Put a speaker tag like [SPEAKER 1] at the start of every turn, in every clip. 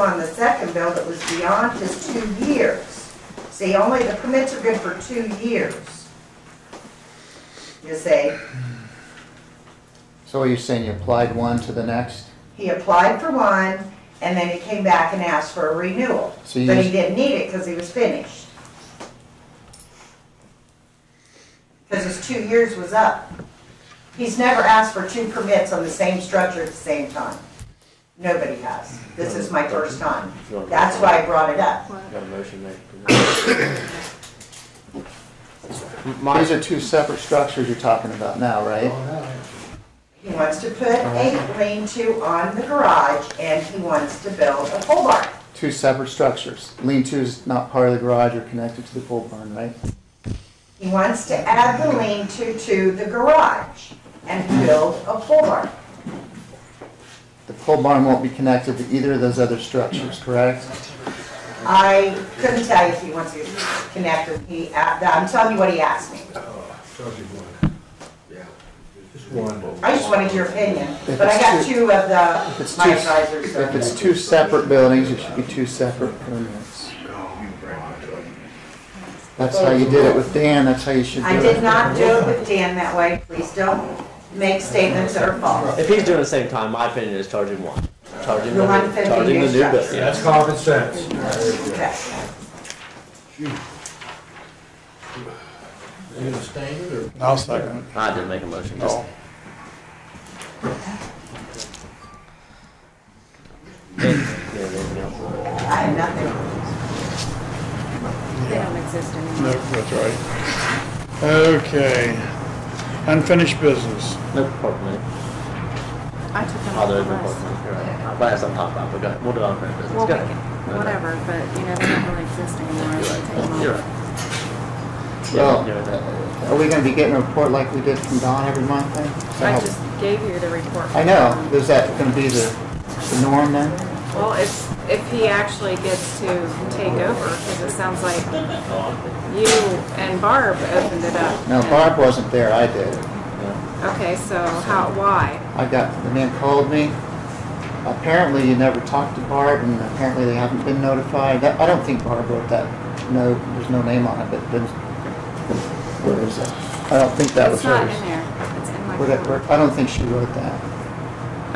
[SPEAKER 1] on the second bill that was beyond his two years. See, only the permits are good for two years. You see,
[SPEAKER 2] So are you saying you applied one to the next?
[SPEAKER 1] he applied for one, and then he came back and asked for a renewal.
[SPEAKER 2] So you
[SPEAKER 1] But he
[SPEAKER 2] just-
[SPEAKER 1] didn't need it because he was finished. Because his two years was up. He's never asked for two permits on the same structure at the same time. Nobody has. This is my first time. That's why I brought it up.
[SPEAKER 3] Got a motion made.
[SPEAKER 2] These are two separate structures you're talking about now, right?
[SPEAKER 1] He wants to put a lean-to on the garage, and he wants to build a pole barn.
[SPEAKER 2] Two separate structures. Lean-to is not part of the garage or connected to the pole barn, right?
[SPEAKER 1] He wants to add the lean-to to the garage and build a pole barn.
[SPEAKER 2] The pole barn won't be connected to either of those other structures, correct?
[SPEAKER 1] I couldn't tell you if he wants to connect with, he, uh, I'm telling you what he asked me.
[SPEAKER 4] Oh, Just one.
[SPEAKER 1] I just wanted your opinion, but I got two of
[SPEAKER 2] If
[SPEAKER 1] the,
[SPEAKER 2] it's
[SPEAKER 1] my
[SPEAKER 2] two-
[SPEAKER 1] advisors. so-
[SPEAKER 2] If it's two separate buildings, it should be two separate permits. That's how you did it with Dan, that's how you should do it.
[SPEAKER 1] I did not do it with Dan that way, please don't make statements that are false.
[SPEAKER 3] If he's doing the same time, my opinion is charge him one. Charge him the,
[SPEAKER 1] The one fifty
[SPEAKER 3] charge him the
[SPEAKER 1] new
[SPEAKER 3] new bill.
[SPEAKER 1] structure.
[SPEAKER 4] That's common sense.
[SPEAKER 1] Okay.
[SPEAKER 4] You gonna stain it or?
[SPEAKER 5] I'll second it.
[SPEAKER 3] I didn't make a motion, just,
[SPEAKER 5] No.
[SPEAKER 3] yeah, anything else?
[SPEAKER 6] Oh.
[SPEAKER 1] I have nothing.
[SPEAKER 6] They don't exist
[SPEAKER 5] No,
[SPEAKER 6] anymore.
[SPEAKER 5] that's right. Okay. Unfinished business.
[SPEAKER 3] No park minute.
[SPEAKER 6] I took them off
[SPEAKER 3] Other
[SPEAKER 6] the
[SPEAKER 3] than park
[SPEAKER 6] list.
[SPEAKER 3] minute, you're right. But that's not top up, but go ahead, we'll do it on our business.
[SPEAKER 6] Well, we
[SPEAKER 3] Go
[SPEAKER 6] can,
[SPEAKER 3] ahead.
[SPEAKER 6] whatever, but you know, they don't really exist anymore. I should take them off.
[SPEAKER 3] You're right.
[SPEAKER 2] Well,
[SPEAKER 6] Oh.
[SPEAKER 3] Yeah, you're right.
[SPEAKER 2] Are we gonna be getting a report like we did from Don every month then? Is that
[SPEAKER 6] I
[SPEAKER 2] how-
[SPEAKER 6] just gave you the report.
[SPEAKER 2] I know, is that gonna be the, the norm then?
[SPEAKER 6] Well, if, if he actually gets to take over, because it sounds like
[SPEAKER 3] Oh,
[SPEAKER 6] you and Barb opened it up.
[SPEAKER 2] No,
[SPEAKER 6] and-
[SPEAKER 2] Barb wasn't there, I did.
[SPEAKER 6] Okay, so how, why?
[SPEAKER 2] I got, the man called me. Apparently you never talked to Barb and apparently they haven't been notified. That- I don't think Barb wrote that, no, there's no name on it, but there's, where is it? I don't think that was
[SPEAKER 6] It's not in
[SPEAKER 2] hers.
[SPEAKER 6] there. It's in my
[SPEAKER 2] Where that- where-
[SPEAKER 6] phone.
[SPEAKER 2] I don't think she wrote that.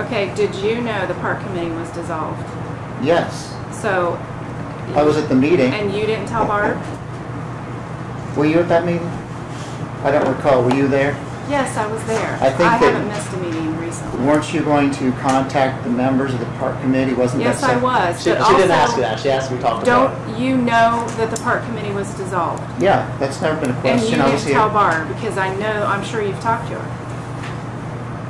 [SPEAKER 6] Okay, did you know the park committee was dissolved?
[SPEAKER 2] Yes,
[SPEAKER 6] So.
[SPEAKER 2] I was at the meeting.
[SPEAKER 6] And you didn't tell Barb?
[SPEAKER 2] Were you at that meeting? I don't recall, were you there?
[SPEAKER 6] Yes, I was there.
[SPEAKER 2] I think
[SPEAKER 6] I
[SPEAKER 2] that-
[SPEAKER 6] haven't missed a meeting recently.
[SPEAKER 2] Weren't you going to contact the members of the park committee? Wasn't that
[SPEAKER 6] Yes, I
[SPEAKER 2] some-
[SPEAKER 6] was,
[SPEAKER 3] She,
[SPEAKER 6] but
[SPEAKER 3] she didn't ask you
[SPEAKER 6] also,
[SPEAKER 3] that, she asked me to talk about it.
[SPEAKER 6] don't you know that the park committee was dissolved?
[SPEAKER 2] Yeah, that's never been a
[SPEAKER 6] And you
[SPEAKER 2] question. I was
[SPEAKER 6] didn't
[SPEAKER 2] here
[SPEAKER 6] tell Barb, because I know, I'm sure you've talked to her.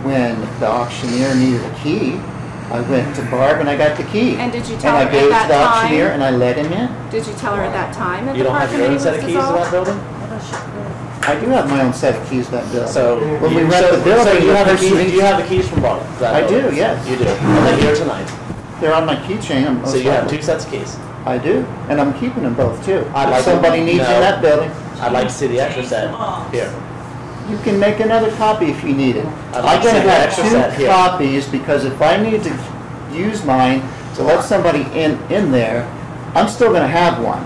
[SPEAKER 2] when the auctioneer needed a key. I went to Barb and I got the key.
[SPEAKER 6] And did you tell her
[SPEAKER 2] And I
[SPEAKER 6] at
[SPEAKER 2] gave it
[SPEAKER 6] that
[SPEAKER 2] to the auctioneer
[SPEAKER 6] time-
[SPEAKER 2] and I let him in.
[SPEAKER 6] Did you tell her at that time that
[SPEAKER 3] You
[SPEAKER 6] the
[SPEAKER 3] don't
[SPEAKER 6] park
[SPEAKER 3] have your
[SPEAKER 6] committee
[SPEAKER 3] own
[SPEAKER 6] was
[SPEAKER 3] set of keys to that
[SPEAKER 6] dissolved?
[SPEAKER 3] building?
[SPEAKER 2] I do have my own set of keys to that building.
[SPEAKER 3] So.
[SPEAKER 2] When we
[SPEAKER 3] you-
[SPEAKER 2] rent
[SPEAKER 3] so-
[SPEAKER 2] the building,
[SPEAKER 3] So you
[SPEAKER 2] the
[SPEAKER 3] have the
[SPEAKER 2] person
[SPEAKER 3] keys, do
[SPEAKER 2] needs-
[SPEAKER 3] you have the keys from Barb? to that
[SPEAKER 2] I do,
[SPEAKER 3] building?
[SPEAKER 2] yes.
[SPEAKER 3] You do, and they're here tonight,
[SPEAKER 2] They're on my keychain. I'm
[SPEAKER 3] so
[SPEAKER 2] most
[SPEAKER 3] you have
[SPEAKER 2] likely-
[SPEAKER 3] two sets of keys.
[SPEAKER 2] I do, and I'm keeping them both too.
[SPEAKER 3] I'd
[SPEAKER 2] If
[SPEAKER 3] like to-
[SPEAKER 2] somebody needs you
[SPEAKER 3] no.
[SPEAKER 2] in that building,
[SPEAKER 3] I'd like to see the extra set here.
[SPEAKER 2] you can make another copy if you need it.
[SPEAKER 3] I'd like
[SPEAKER 2] I'm
[SPEAKER 3] to
[SPEAKER 2] gonna
[SPEAKER 3] see the
[SPEAKER 2] have
[SPEAKER 3] extra set
[SPEAKER 2] two
[SPEAKER 3] here.
[SPEAKER 2] copies because if I need to use mine to let somebody in, in there, I'm still gonna have one.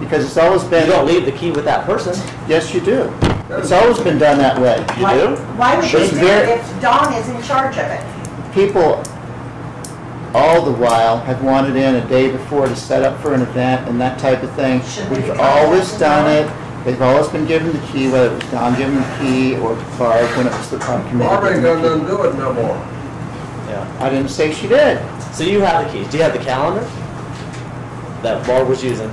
[SPEAKER 2] Because it's always
[SPEAKER 3] You
[SPEAKER 2] been,
[SPEAKER 3] don't leave the key with that person.
[SPEAKER 2] yes, you do. It's always been done that way.
[SPEAKER 3] You
[SPEAKER 1] Why-
[SPEAKER 3] do?
[SPEAKER 1] Why would you do
[SPEAKER 2] It's very-
[SPEAKER 1] it if Don is in charge of it?
[SPEAKER 2] people all the while have wanted in a day before to set up for an event and that type of thing.
[SPEAKER 1] Shouldn't we
[SPEAKER 2] We've
[SPEAKER 1] try that
[SPEAKER 2] always
[SPEAKER 1] as
[SPEAKER 2] done
[SPEAKER 1] well?
[SPEAKER 2] it. They've always been given the key, whether it was Don giving the key or Barb when it was the park committee.
[SPEAKER 4] Barb ain't
[SPEAKER 2] giving the
[SPEAKER 4] got nothing to do with it no more.
[SPEAKER 3] Yeah.
[SPEAKER 2] key. I didn't say she did.
[SPEAKER 3] So you have the keys. Do you have the calendar that Barb was using?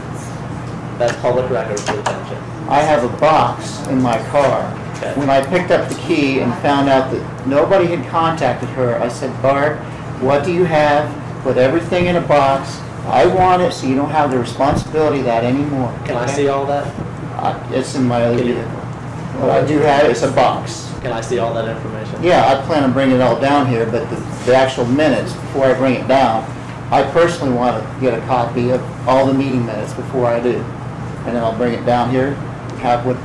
[SPEAKER 3] That's public record for the township.
[SPEAKER 2] I have a box in my car.
[SPEAKER 3] Okay.
[SPEAKER 2] When I picked up the key and found out that nobody had contacted her, I said, Barb, what do you have? Put everything in a box. I want it so you don't have the responsibility of that anymore.
[SPEAKER 3] Can I
[SPEAKER 2] okay?"
[SPEAKER 3] see all that?
[SPEAKER 2] I- It's in my other
[SPEAKER 3] Can you-
[SPEAKER 2] vehicle. What I do have, it's a box.
[SPEAKER 3] Can I see all that information?
[SPEAKER 2] Yeah, I plan on bringing it all down here, but the, the actual minutes, before I bring it down, I personally want to get a copy of all the meeting minutes before I do. And then I'll bring it down here, have what,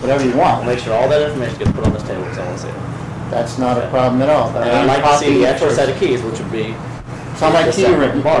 [SPEAKER 2] whatever you
[SPEAKER 3] I'll
[SPEAKER 2] want.
[SPEAKER 3] make sure all that information gets put on this table because I want to see it.
[SPEAKER 2] That's not a problem at all. but I
[SPEAKER 3] And I'd
[SPEAKER 2] need a
[SPEAKER 3] like to see
[SPEAKER 2] copy
[SPEAKER 3] the extra
[SPEAKER 2] first.
[SPEAKER 3] set of keys, which would be
[SPEAKER 2] It's on my
[SPEAKER 3] Just
[SPEAKER 2] key
[SPEAKER 3] that
[SPEAKER 2] ring.
[SPEAKER 3] box.